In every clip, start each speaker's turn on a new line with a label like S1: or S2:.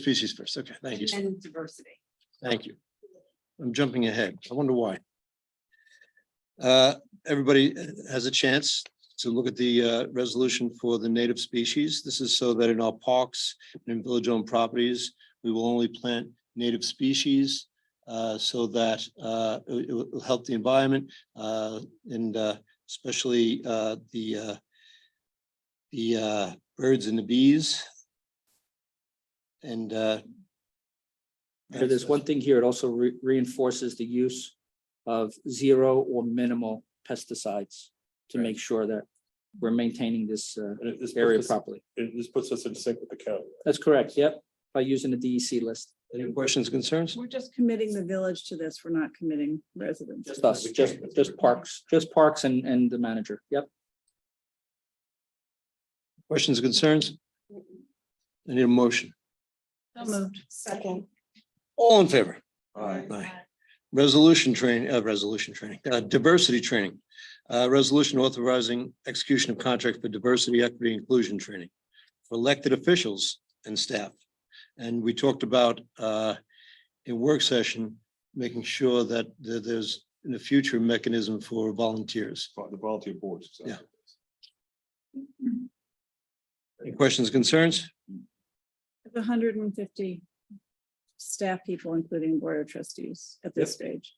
S1: Species first, okay, thank you, sir.
S2: And diversity.
S1: thank you. I'm jumping ahead, I wonder why. Uh, everybody has a chance to look at the uh resolution for the native species. This is so that in our parks and in village-owned properties, we will only plant native species uh so that uh it it will it'll help the environment uh and uh especially uh the uh the uh birds and the bees. And uh
S3: So there's one thing here, it also re- reinforces the use of zero or minimal pesticides to make sure that we're maintaining this uh,
S4: And it- this
S3: area
S4: puts us,
S3: properly.
S4: it- this puts us in sync with the county.
S3: That's correct, yep, by using the DEC list,
S1: Any questions, concerns?
S5: We're just committing the village to this. We're not committing residents.
S3: just us, just, just parks, just parks and, and the manager, yep.
S1: Questions, concerns? I need a motion.
S5: moved.
S2: Second.
S1: All in favor?
S2: Aye.
S1: Aye. Resolution training, uh, resolution training, uh, diversity training. Uh, resolution authorizing execution of contract for diversity, equity, inclusion training for elected officials and staff. And we talked about, uh, in work session, making sure that th- there's in the future mechanism for volunteers.
S4: The volunteer boards. exactly.
S1: Any questions, concerns?
S5: hundred and fifty staff people, including board of trustees at this stage.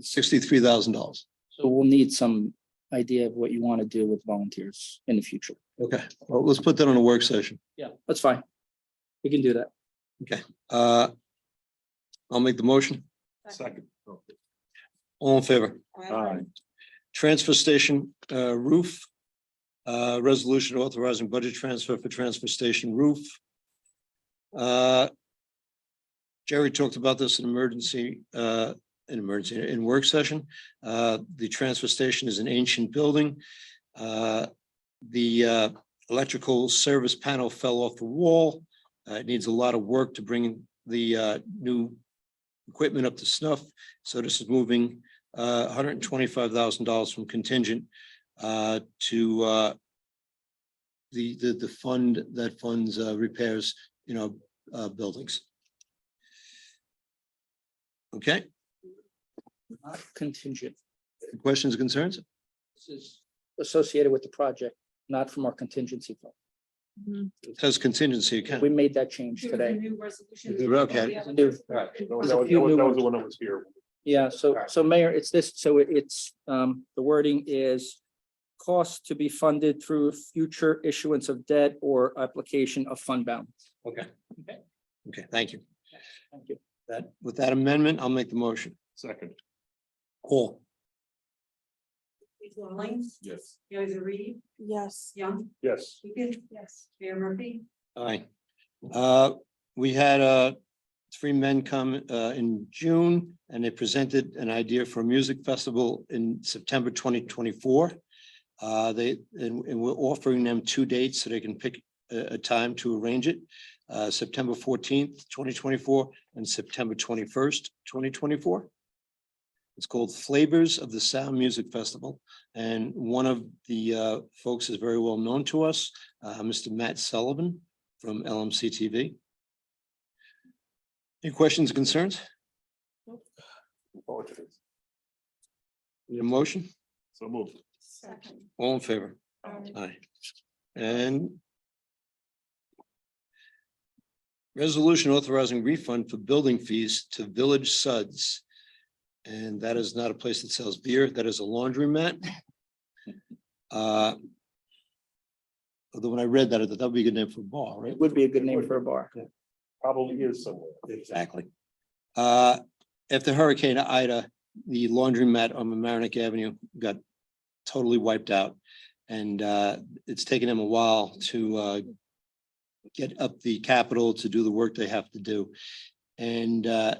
S1: Sixty-three thousand dollars.
S3: So we'll need some idea of what you want to do with volunteers in the future.
S1: Okay, well, let's put that on a work session.
S3: Yeah, that's fine. We can do that.
S1: Uh, I'll make the motion.
S4: Second. Oh.
S1: All in favor?
S4: Aye.
S1: Transfer station uh, roof. Uh, Resolution authorizing budget transfer for transfer station roof. Uh, Jerry talked about this in emergency, uh, in emergency, in work session. Uh, The transfer station is an ancient building. Uh, The uh, electrical service panel fell off the wall. Uh, It needs a lot of work to bring the uh, new equipment up to snuff. So this is moving uh, hundred and twenty-five thousand dollars from contingent, uh, to, uh, the, the, the fund that funds, uh, repairs, you know, uh, buildings. Okay,
S3: Not Contingent,
S1: questions, concerns?
S3: this is associated with the project, not from our contingency fund.
S1: It Says contingency
S3: We
S1: account.
S3: made that change today.
S2: New resolution.
S1: Okay.
S2: Yeah.
S3: New-
S4: Alright, That was
S3: There's a
S4: that was-
S3: few new
S4: that was
S3: ones.
S4: the one that was here.
S3: Yeah, so,
S4: Alright.
S3: so Mayor, it's this, so it- it's, um, the wording is costs to be funded through future issuance of debt or application of fund balance.
S1: Okay. Okay, thank you.
S3: Thank you.
S1: That, with that amendment, I'll make the motion.
S4: Second.
S1: Cool.
S2: Lines,
S4: Yes.
S2: Joyce Reed,
S5: Yes.
S2: Young,
S4: Yes.
S2: Dugan. Yes. Mayor Murphy.
S1: Aye. Uh, we had, uh, three men come, uh, in June and they presented an idea for a music festival in September twenty twenty-four. Uh, they, and, and we're offering them two dates so they can pick a, a time to arrange it. Uh, September fourteenth, twenty twenty-four and September twenty-first, twenty twenty-four. It's called Flavors of the Sound Music Festival. And one of the, uh, folks is very well known to us, uh, Mr. Matt Sullivan from LMC TV. Any questions, concerns, Need a motion,
S4: So moved.
S2: Second.
S1: all in favor? Aye. And resolution authorizing refund for building fees to Village Suds. And that is not a place that sells beer, that is a laundromat. Uh, Although when I read that, I thought that would be a good name for a bar, right?
S3: It would be a good name for a bar.
S4: Probably is somewhere.
S1: Exactly. Uh, after Hurricane Ida, the laundromat on Mamaroneck Avenue got totally wiped out. And, uh, it's taken them a while to, uh, get up the capital to do the work they have to do. And, uh,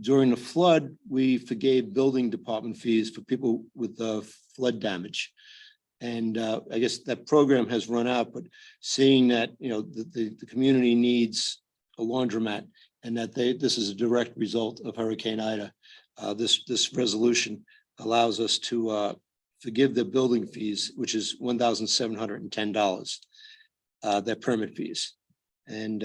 S1: during the flood, we forgave building department fees for people with, uh, flood damage. And, uh, I guess that program has run out, but seeing that, you know, the, the, the community needs a laundromat and that they, this is a direct result of Hurricane Ida. Uh, this, this resolution allows us to, uh, forgive the building fees, which is one thousand seven hundred and ten dollars. Uh, their permit fees. And